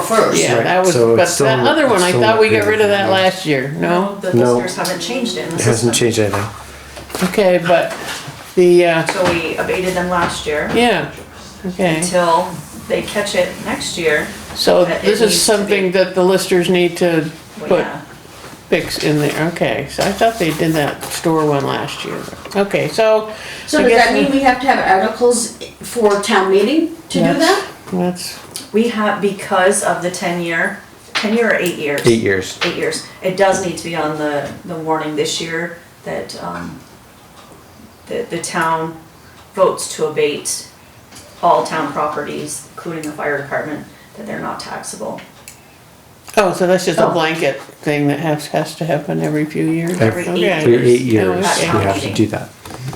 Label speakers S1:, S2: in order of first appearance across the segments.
S1: first.
S2: Yeah,
S3: Right,
S2: that was,
S3: so
S2: but
S3: it's still-
S2: that other one,
S3: it's
S2: I
S3: still
S2: thought we got rid of that
S3: included.
S2: last year, no?
S4: The
S3: No.
S4: listeners haven't changed it in the
S3: It hasn't
S4: system.
S3: changed anything.
S2: Okay, but the, uh,
S4: So we abated them last year
S2: yeah, okay.
S4: until they catch it next year.
S2: So
S4: that it
S2: this
S4: needs
S2: is
S4: to be-
S2: something that the listers need to
S4: Well,
S2: put,
S4: yeah.
S2: fix in there, okay. So I thought they did that store one last year. Okay, so.
S1: So
S2: I
S1: does
S2: guess
S1: that mean we have to have articles for town meeting to do
S2: that's-
S1: that?
S2: That's,
S4: We have, because of the ten year, ten year or eight years?
S3: Eight years.
S4: Eight years. It does need to be on the, the warning this year that, um, that the town votes to abate all town properties, including the fire department, that they're not taxable.
S2: oh, so that's just a
S4: Oh.
S2: blanket thing that has, has to happen every few years?
S3: Every
S2: Okay.
S3: For eight years,
S2: Oh,
S3: we
S2: okay.
S3: have to do that.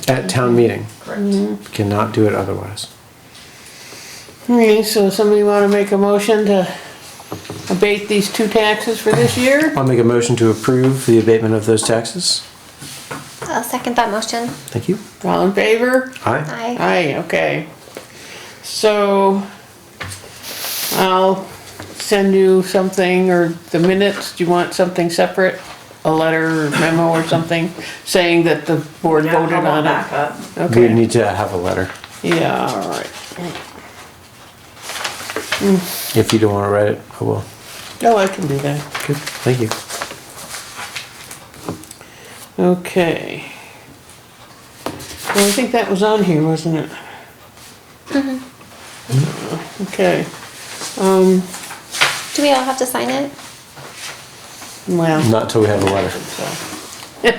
S3: At town meeting,
S2: Mm-hmm.
S4: Correct.
S3: cannot do it otherwise.
S2: Okay, so somebody wanna make a motion to abate these two taxes for this year?
S3: I'll make a motion to approve the abatement of those taxes.
S5: I'll second that motion.
S3: Thank you.
S2: All in favor?
S3: Aye.
S5: Aye.
S2: Aye, okay. So I'll send you something or the minutes, do you want something separate? A letter or memo or something saying that the board
S4: Now,
S2: voted
S4: how about
S2: on it?
S4: back up?
S3: We
S2: Okay,
S3: need to have a letter.
S2: yeah, all right.
S3: If you don't want to write it, I will.
S2: Oh, I can do that.
S3: Good. Thank you.
S2: Okay. Well, I think that was on here, wasn't it?
S1: Mm-hmm.
S2: Uh, Okay,
S5: Do we all have to sign it?
S2: well.
S3: Not till we have a letter.
S1: And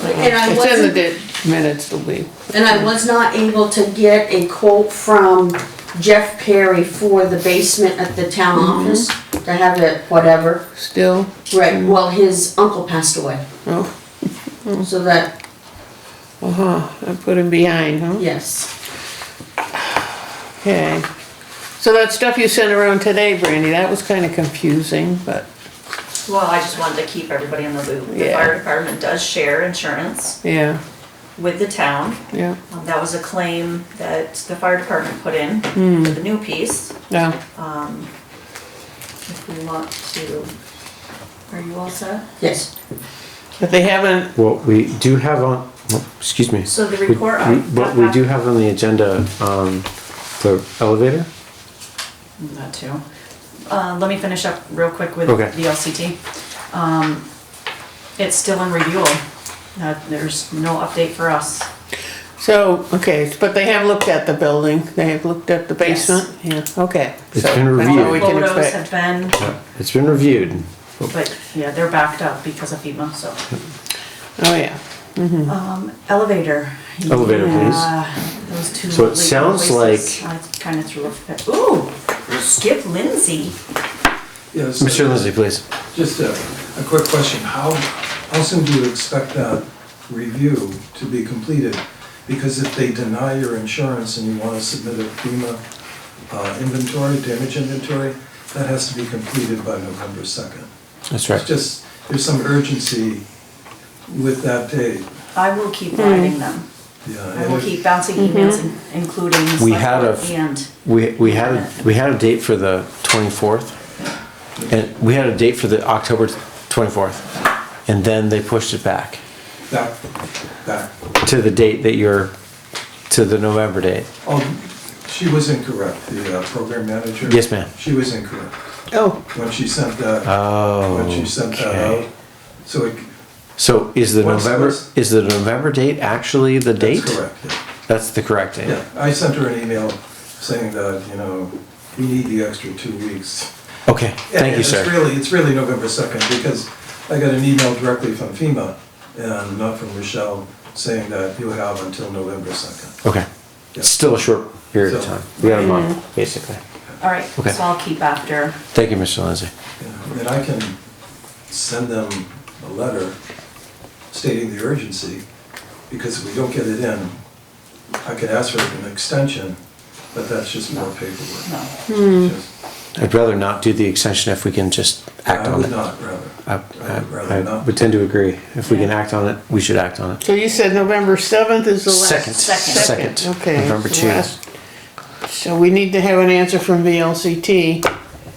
S1: I
S2: Uh-huh. It's in the
S1: wasn't,
S2: di- minutes, it'll be.
S1: and I was not able to get a quote from Jeff Perry for the basement at the town
S2: Mm-hmm.
S1: office to have it, whatever.
S2: Still,
S1: Right, well, his uncle passed away,
S2: Mm. oh,
S1: so that,
S2: uh-huh, I put him behind, huh?
S1: yes,
S2: Okay. So that stuff you sent around today, Brandy, that was kinda confusing, but,
S4: Well, I just wanted to keep everybody in the loop. The
S2: Yeah.
S4: fire department does share insurance
S2: yeah,
S4: with the town.
S2: yeah,
S4: Um, That was a claim that the fire department put in
S2: Hmm.
S4: for the new piece.
S2: yeah.
S4: If we want to, are you all set?
S1: yes.
S2: But they haven't,
S3: Well, we do have on, oh, excuse me.
S4: So the
S3: We-
S4: report
S3: we-
S4: on.
S3: What we do have on the agenda, um, the elevator?
S4: That too. Uh, let me finish up real quick with
S3: Okay.
S4: the LCT. Um, It's still in review. Uh, There's no update for us.
S2: so, okay, but they have looked at the building, they have looked at the
S4: Yes.
S2: basement, yeah, okay.
S3: It's
S2: So
S3: been
S2: that's all
S3: reviewed.
S2: we can
S4: Photos
S2: expect.
S4: have been,
S3: It's been reviewed.
S4: but yeah, they're backed up because of FEMA, so.
S2: Oh, yeah.
S4: Um, elevator.
S3: Elevator, please.
S4: please. Those two.
S3: So it
S4: legal
S3: sounds
S4: places. I kind of threw a fit. Ooh, Skip Lindsay.
S6: Yes.
S3: Mr. Lindsay, please.
S6: Just a, a quick question. How, how soon do you expect that review to be completed? Because if they deny your insurance and you want to submit a FEMA uh, inventory, damage inventory, that has to be completed by November 2nd.
S3: That's
S6: It's just, there's some urgency with that date.
S4: I will keep writing them.
S6: Yeah,
S4: I
S6: and
S4: will
S6: if-
S4: keep bouncing emails, in- including.
S3: We
S4: select
S3: had
S4: board
S3: a-
S4: And,
S3: We, we had, a- we had a date for the twenty-fourth. And we had a date for the October twenty-fourth. And then they pushed it back
S6: That, that,
S3: to the date that you're, to the November date.
S6: oh, she was incorrect, the uh, program manager.
S3: Yes, ma'am.
S6: She was incorrect
S2: Oh,
S6: when she sent that.
S3: Oh,
S6: When she sent that
S3: okay.
S6: out. So it,
S3: So is the
S6: What's-
S3: November,
S6: what's-
S3: is the November date actually the date?
S6: That's correct, yeah.
S3: That's the correct date?
S6: yeah. I sent her an email saying that, you know, we need the extra two weeks.
S3: Okay,
S6: And-
S3: thank
S6: and
S3: you, sir.
S6: It's really, it's really November 2nd, because I got an email directly from FEMA, and not from Rochelle, saying that you have until November 2nd.
S3: Okay.
S6: Yeah.
S3: It's still a short period of
S6: So-
S3: time. We got a month, basically.
S4: all right,
S3: Okay.
S4: so I'll keep after.
S3: Thank you, Mr. Lindsay.
S6: you know. And I can send them a letter stating the urgency, because if we don't get it in, I could ask for an extension, but that's just more
S4: No.
S6: paperwork. Just-
S3: I'd rather not do the extension if we can just act
S6: I
S3: on
S6: would
S3: it.
S6: not, rather.
S3: I,
S6: I would
S3: I,
S6: rather
S3: I
S6: not.
S3: would tend to agree. If we can act on it, we should act on it.
S2: so you said November seventh is the last.
S3: Second,
S4: Second.
S3: second,
S2: Okay.
S3: November
S2: so
S3: two.
S2: last- So we need to have an answer from VLCT